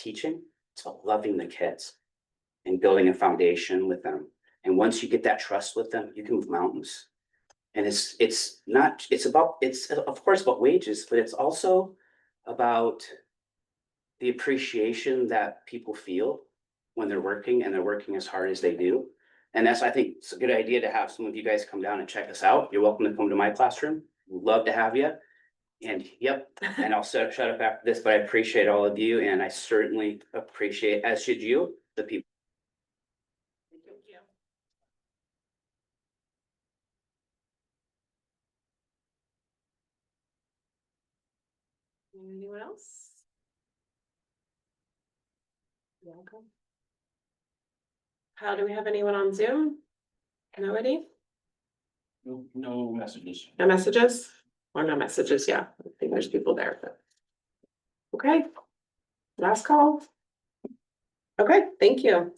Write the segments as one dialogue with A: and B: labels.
A: teaching, it's about loving the kids and building a foundation with them. And once you get that trust with them, you can move mountains. And it's, it's not, it's about, it's of course about wages, but it's also about the appreciation that people feel when they're working and they're working as hard as they do. And that's, I think, it's a good idea to have some of you guys come down and check us out. You're welcome to come to my classroom. Love to have you. And yep, and I'll shut, shut up after this, but I appreciate all of you and I certainly appreciate, as should you, the people.
B: Anyone else? Welcome. How do we have anyone on Zoom? Nobody?
C: No, no messages.
B: No messages? Or no messages, yeah, I think there's people there, but. Okay. Last call. Okay, thank you.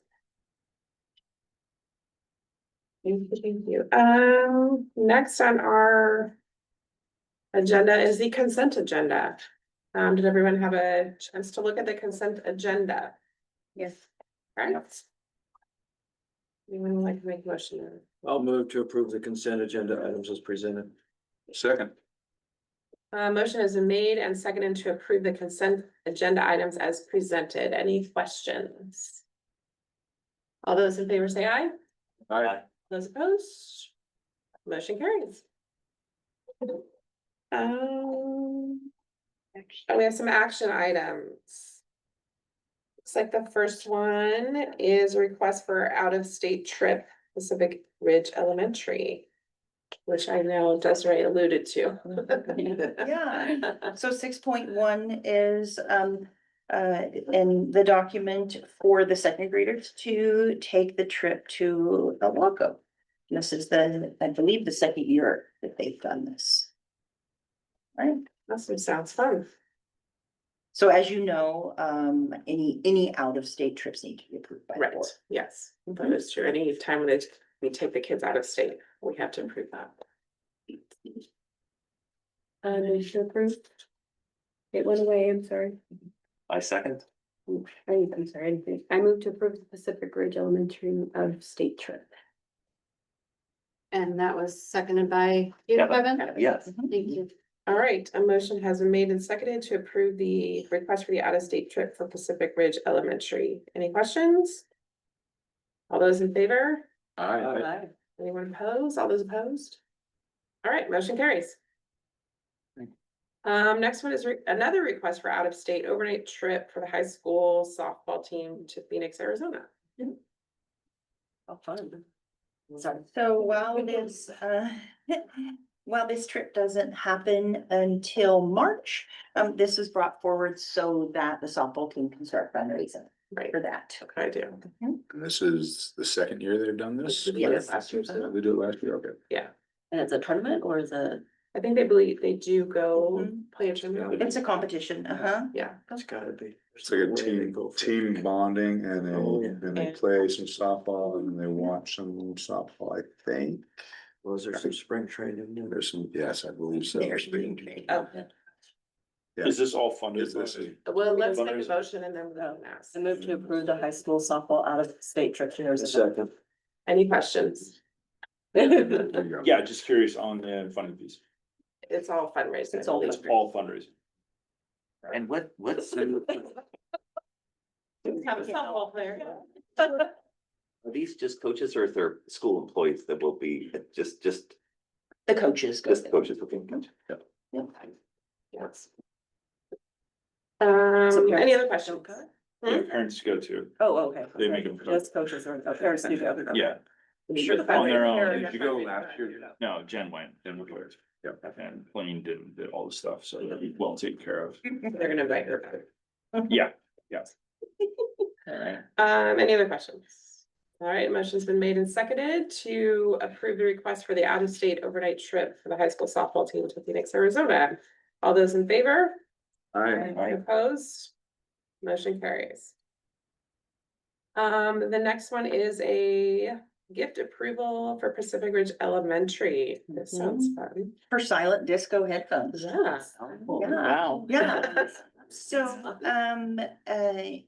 B: Thank you, thank you. Um, next on our. Agenda is the consent agenda. Um, did everyone have a chance to look at the consent agenda? Yes. Right. Anyone like to make a motion or?
C: I'll move to approve the consent agenda items as presented. Second.
B: Uh, motion has been made and seconded to approve the consent agenda items as presented. Any questions? All those in favor say aye.
C: Aye.
B: Those opposed? Motion carries. Um. And we have some action items. Looks like the first one is a request for out-of-state trip Pacific Ridge Elementary. Which I know Desiree alluded to.
D: Yeah. So six point one is um uh in the document for the second graders to take the trip to El Waco. This is the, I believe, the second year that they've done this. Right?
B: Awesome, sounds fun.
D: So as you know, um any any out of state trips need to be approved by the
B: Right,
D: board.
B: yes, that is true. Any time when it- we take the kids out of state, we have to improve that. Uh, motion approved.
E: It went away, I'm sorry.
C: I second.
E: I, I'm sorry, I didn't think- I moved to approve the Pacific Ridge Elementary uh, of state trip.
F: And that was seconded by you,
C: Yeah,
F: Bevan?
C: Yes.
F: Thank you.
B: All right, a motion has been made and seconded to approve the request for the out-of-state trip for Pacific Ridge Elementary. Any questions? All those in favor?
C: Aye.
B: Anyone opposed? All those opposed? All right, motion carries.
C: Thank you.
B: Um, next one is re- another request for out-of-state overnight trip for the high school softball team to Phoenix, Arizona.
D: Sorry. Oh, So while this, uh, while this trip doesn't happen until March, um, this was brought forward so that the softball team can start fundraising
B: Right,
D: for that.
B: okay, I do.
D: Mm-hmm.
G: And this is the second year they've done this?
B: We did it last year,
G: We did it last year, okay.
E: And it's a tournament or is it?
B: I think they believe they do go
F: Mm-hmm.
D: Mhm.
B: play a tournament.
D: It's a competition, uh-huh.
B: Yeah,
C: It's gotta be.
G: It's like a team, team bonding and
C: Oh, yeah.
G: they, and they
B: And-
G: play some softball and they watch some softball, I think.
C: Was there some spring training? in there?
G: There's some, yes, I believe so.
D: There's being made.
B: Oh.
G: Is
C: this all funded?
G: Is this a-
B: well, let's make a
C: Fundraiser.
B: motion and then we'll ask.
E: I moved to approve the high school softball out of state trip to Arizona.
C: Second.
B: Any questions?
G: there you go.
H: Yeah, just curious on the funding piece.
B: It's all fundraising.
D: It's all
H: It's all fundraising.
C: And what, what's the,
B: Have a softball player.
I: Are these just coaches or is there school employees that will be just, just,
D: The coaches go
I: just
D: there.
I: coaches? Okay, gotcha.
B: Yes. Um, any other questions?
H: The parents go to,
E: Oh, okay.
H: They make them-
E: Just coaches or or parents do go.
H: yeah,
B: I'm
H: Sure,
B: sure the
H: on their
B: fundraiser-
H: own. Did you go
B: fundraiser-
H: no, Jen went, Jen was there.
G: Yep.
H: And Blaine did, did all the stuff, so they'll be well taken care of.
B: They're gonna invite her back.
H: Yeah,
E: Alright.
B: Um, any other questions? All right, motion's been made and seconded to approve the request for the out-of-state overnight trip for the high school softball team to Phoenix, Arizona. All those in favor?
G: Aye.
C: Aye.
B: Opposed? Motion carries. Um, the next one is a gift approval for Pacific Ridge Elementary. This sounds fun.
D: For silent disco headphones.
B: Yeah.
D: Yeah. Yeah. So, um, uh,